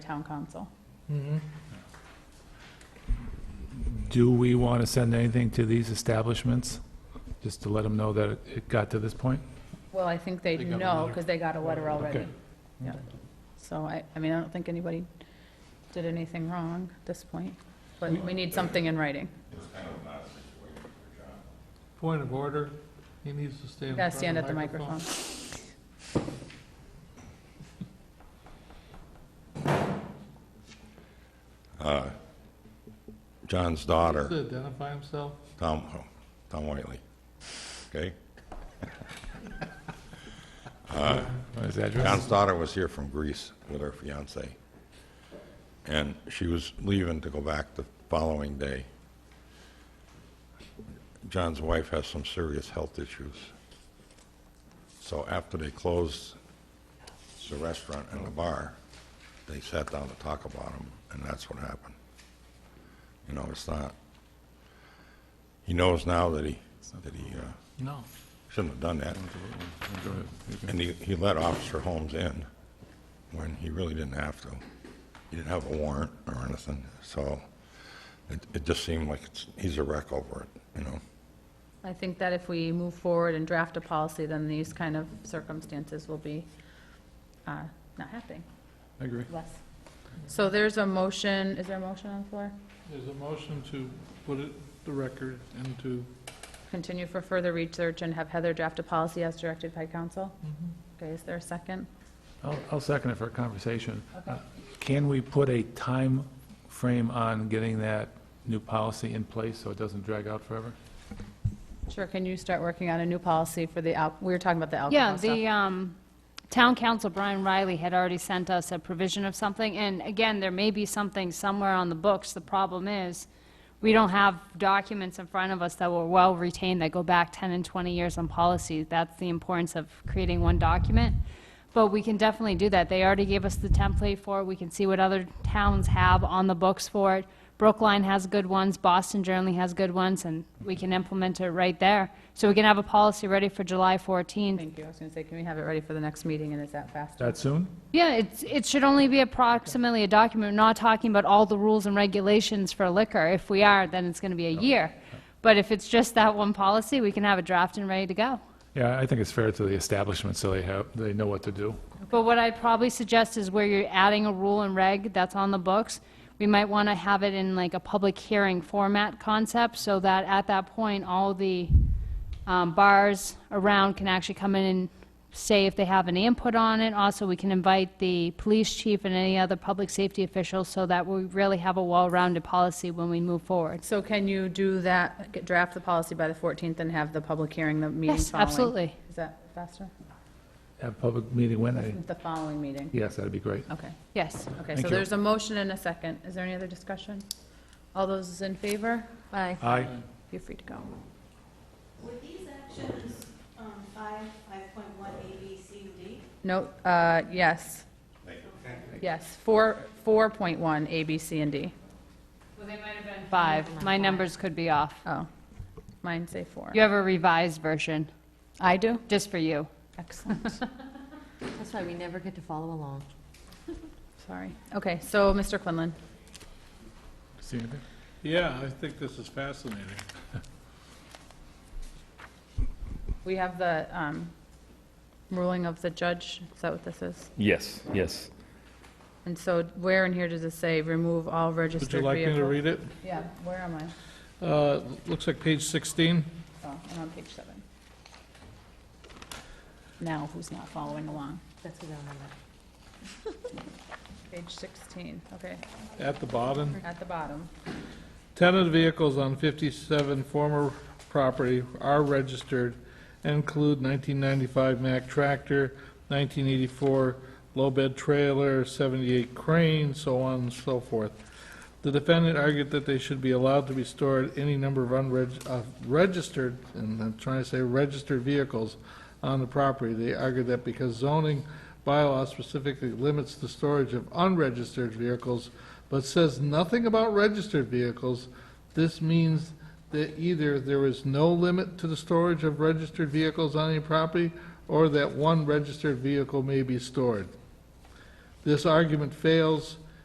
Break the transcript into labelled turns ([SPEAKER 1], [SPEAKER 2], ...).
[SPEAKER 1] town council.
[SPEAKER 2] Mm-hmm.
[SPEAKER 3] Do we want to send anything to these establishments, just to let them know that it- it got to this point?
[SPEAKER 1] Well, I think they
[SPEAKER 2] They got a
[SPEAKER 1] know,
[SPEAKER 2] letter.
[SPEAKER 1] because they got a letter already.
[SPEAKER 3] Okay.
[SPEAKER 1] Yeah. So I, I mean, I don't think anybody did anything wrong at this point, but we need something in writing.
[SPEAKER 2] Point of order, he needs to stand in
[SPEAKER 1] Gotta
[SPEAKER 2] front
[SPEAKER 1] stand at the microphone.
[SPEAKER 4] John's
[SPEAKER 2] Just
[SPEAKER 4] daughter,
[SPEAKER 2] to identify himself.
[SPEAKER 4] Tom, oh, Tom Whiteley, okay?
[SPEAKER 3] What is that address?
[SPEAKER 4] John's daughter was here from Greece with her fiance. And she was leaving to go back the following day. John's wife has some serious health issues. So after they closed the restaurant and the bar, they sat down to talk about them, and that's what happened. You know, it's not, he knows now that he, that he uh,
[SPEAKER 2] No.
[SPEAKER 4] shouldn't have done that. And he, he let Officer Holmes in when he really didn't have to. He didn't have a warrant or anything, so it, it just seemed like it's, he's a wreck over it, you know?
[SPEAKER 1] I think that if we move forward and draft a policy, then these kind of circumstances will be uh, not happening,
[SPEAKER 3] I agree.
[SPEAKER 1] less. So there's a motion, is there a motion on the floor?
[SPEAKER 2] There's a motion to put it, the record into,
[SPEAKER 1] Continue for further research and have Heather draft a policy as directed by council? Okay, is there a second?
[SPEAKER 3] I'll, I'll second it for conversation. Uh, Can we put a time frame on getting that new policy in place so it doesn't drag out forever?
[SPEAKER 1] Sure, can you start working on a new policy for the, al- we were talking about the
[SPEAKER 5] Yeah,
[SPEAKER 1] alcohol stuff?
[SPEAKER 5] the um, town council, Brian Riley, had already sent us a provision of something, and again, there may be something somewhere on the books. The problem is, we don't have documents in front of us that were well-retained that go back 10 and 20 years on policies. That's the importance of creating one document. But we can definitely do that. They already gave us the template for it. We can see what other towns have on the books for it. Brookline has good ones, Boston generally has good ones, and we can implement it right there. So we can have a policy ready for July 14th.
[SPEAKER 1] Thank you, I was gonna say, can we have it ready for the next meeting, and is that faster?
[SPEAKER 3] That soon?
[SPEAKER 5] Yeah, it's, it should only be approximately a document, We're not talking about all the rules and regulations for liquor. If we are, then it's gonna be a year. But if it's just that one policy, we can have it drafted and ready to go.
[SPEAKER 3] Yeah, I think it's fair to the establishment so they have, they know what to do.
[SPEAKER 5] But what I'd probably suggest is where you're adding a rule and reg that's on the books, we might want to have it in like a public hearing format concept, so that at that point, all the um, bars around can actually come in and say if they have any input on it. Also, we can invite the police chief and any other public safety officials, so that we really have a well-rounded policy when we move forward.
[SPEAKER 1] So can you do that, get- draft the policy by the 14th and have the public hearing, the meeting
[SPEAKER 5] Yes,
[SPEAKER 1] following?
[SPEAKER 5] absolutely.
[SPEAKER 1] Is that faster?
[SPEAKER 3] Have public meeting when? I-
[SPEAKER 1] The following meeting?
[SPEAKER 3] Yes, that'd be great.
[SPEAKER 1] Okay,
[SPEAKER 5] Yes.
[SPEAKER 1] okay,
[SPEAKER 3] Thank
[SPEAKER 1] so
[SPEAKER 3] you.
[SPEAKER 1] there's a motion and a second. Is there any other discussion? All those in favor? Aye.
[SPEAKER 3] Aye.
[SPEAKER 1] You're free to go.
[SPEAKER 6] Would these actions, um, five, five point one, A, B, C, and D?
[SPEAKER 1] No, uh, yes. Yes, 4, 4.1, A, B, C, and D.
[SPEAKER 5] Five. My numbers could be off.
[SPEAKER 1] Oh, mine say 4.
[SPEAKER 5] You have a revised version,
[SPEAKER 1] I do?
[SPEAKER 5] just for you.
[SPEAKER 1] Excellent.
[SPEAKER 7] That's why we never get to follow along.
[SPEAKER 1] Sorry. Okay, so, Mr. Quinlan,
[SPEAKER 3] See anything?
[SPEAKER 2] yeah, I think this is fascinating.
[SPEAKER 1] we have the um, ruling of the judge, is that what this is?
[SPEAKER 8] Yes, yes.
[SPEAKER 1] And so where in here does it say, remove all
[SPEAKER 2] Would you
[SPEAKER 1] registered
[SPEAKER 2] like me to
[SPEAKER 1] vehicles?
[SPEAKER 2] read it?
[SPEAKER 1] Yeah, where am I?
[SPEAKER 2] Uh, looks like page 16.
[SPEAKER 1] Oh, I'm on page seven. Now, who's not following along?
[SPEAKER 7] That's what I remember.
[SPEAKER 1] Page 16, okay,
[SPEAKER 2] at the bottom.
[SPEAKER 1] at the bottom.
[SPEAKER 2] Tenant vehicles on 57 former property are registered and include 1995 Mack tractor, 1984 low bed trailer, 78 crane, so on and so forth. The defendant argued that they should be allowed to be stored any number of unreg, of registered, and I'm trying to say registered vehicles on the property. They argued that because zoning bylaw specifically limits the storage of unregistered vehicles, but says nothing about registered vehicles, this means that either there is no limit to the storage of registered vehicles on any property, or that one registered vehicle may be stored. This argument fails